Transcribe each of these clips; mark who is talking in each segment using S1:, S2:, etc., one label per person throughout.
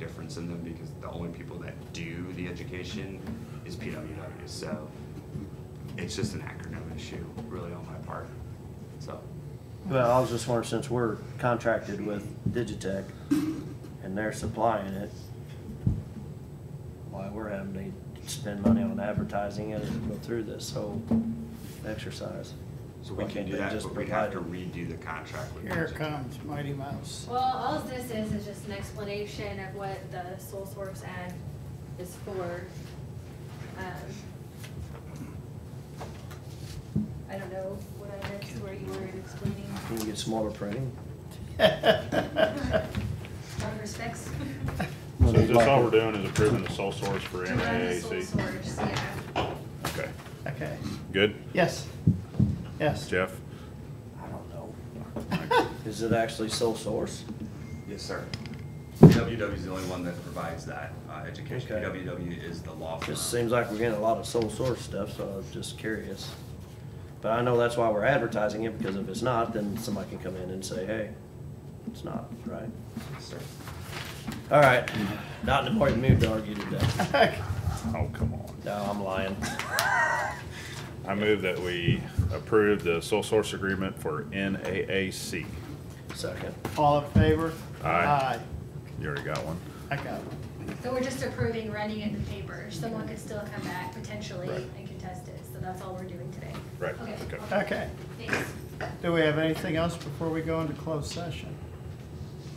S1: difference in them because the only people that do the education is PWW. So it's just an acronym issue, really, on my part. So
S2: Well, I was just wondering, since we're contracted with Digitech and they're supplying it, why we're having to spend money on advertising it and go through this whole exercise.
S1: so we
S2: Why
S1: can
S2: can't
S1: do
S2: they
S1: that,
S2: just
S1: but we'd have to
S2: provide
S1: redo the contract with
S3: Here
S1: Digitech.
S3: comes Mighty Mouse.
S4: Well, all this is, is just an explanation of what the Sole Source Act is for. Um, I don't know what I missed where you were explaining
S2: it? Can you get smaller printing?
S4: our respects.
S5: So is this all we're doing is approving the sole source for
S4: To run the Sole
S5: MAAC?
S4: Source, yeah.
S5: Okay,
S3: Okay,
S5: good.
S3: yes, yes.
S5: Jeff?
S2: I don't know. Is it actually sole source?
S1: Yes, sir. PWW is the only one that provides that uh, education.
S2: Okay.
S1: PWW is the law firm.
S2: Just seems like we're getting a lot of sole source stuff, so I was just curious. But I know that's why we're advertising it, because if it's not, then somebody can come in and say, hey, it's not, right?
S1: Yes, sir.
S2: All right, not in the morning mood to argue today.
S5: Oh, come on.
S2: No, I'm lying.
S5: I move that we approve the sole source agreement for NAAC.
S2: Second.
S3: All in favor?
S5: Aye. You already got one?
S3: I got one.
S4: So we're just approving running it in the paper. Someone could still come back potentially
S5: Right.
S4: and contest it, so that's all we're doing today.
S5: Right,
S4: Okay,
S5: okay.
S3: Okay,
S4: thanks.
S3: do we have anything else before we go into closed session?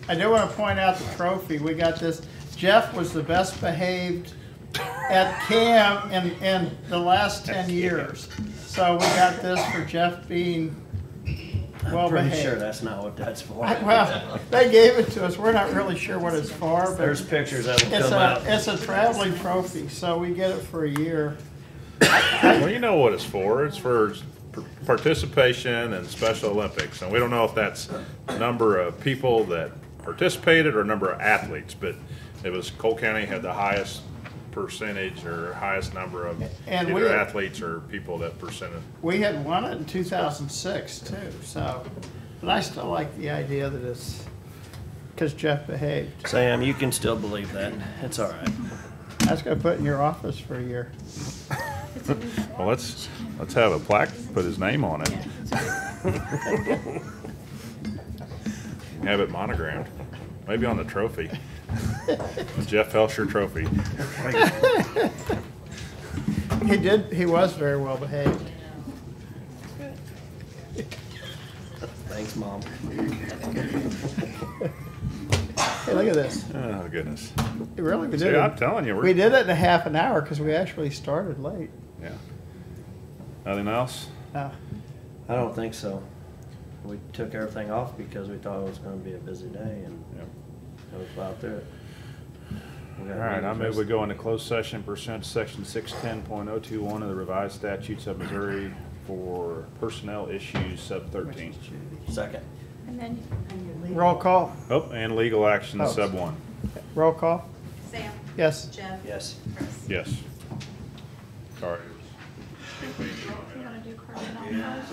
S3: I do want to point out the trophy, we got this, Jeff was the best behaved at CAM in, in the last ten years. So we got this for Jeff being well
S2: I'm pretty sure
S3: behaved.
S2: that's not what that's for.
S3: Well, they gave it to us, we're not really sure what it's for, but.
S2: There's pictures that will
S3: It's
S2: come
S3: a,
S2: out.
S3: it's a traveling trophy, so we get it for a year.
S5: Well, you know what it's for. It's for par- participation in Special Olympics. And we don't know if that's number of people that participated or number of athletes, but it was Cole County had the highest percentage or highest number of
S3: And we-
S5: either athletes or people that presented.
S3: We had won it in two thousand six too, so, but I still like the idea that it's, cause Jeff behaved.
S2: Sam, you can still believe that. It's all right.
S3: That's gonna put in your office for a year.
S5: Well, let's, let's have a plaque, put his name on it. Have it monogrammed, maybe on the trophy. Jeff Felsher Trophy.
S3: He did, he was very well behaved.
S2: Thanks, Mom.
S3: Hey, look at this.
S5: Oh, goodness.
S3: It Really, we did
S5: See, I'm
S3: it.
S5: telling you,
S3: We
S5: we're,
S3: did it in a half an hour, cause we actually started late.
S5: yeah. Nothing else?
S3: Uh,
S2: I don't think so. We took everything off because we thought it was gonna be a busy day and
S5: Yep.
S2: it was about there.
S5: All right, I move we go into closed session pursuant to section six ten point oh two one of the revised statutes of Missouri for personnel issues sub thirteen.
S2: Second.
S6: And then,
S3: Roll call,
S5: Oh, and legal action
S3: Oh.
S5: sub one.
S3: roll call,
S6: Sam,
S3: yes.
S6: Jeff,
S2: Yes.
S6: Chris.
S5: Yes. Sorry.
S6: You wanna do personnel first?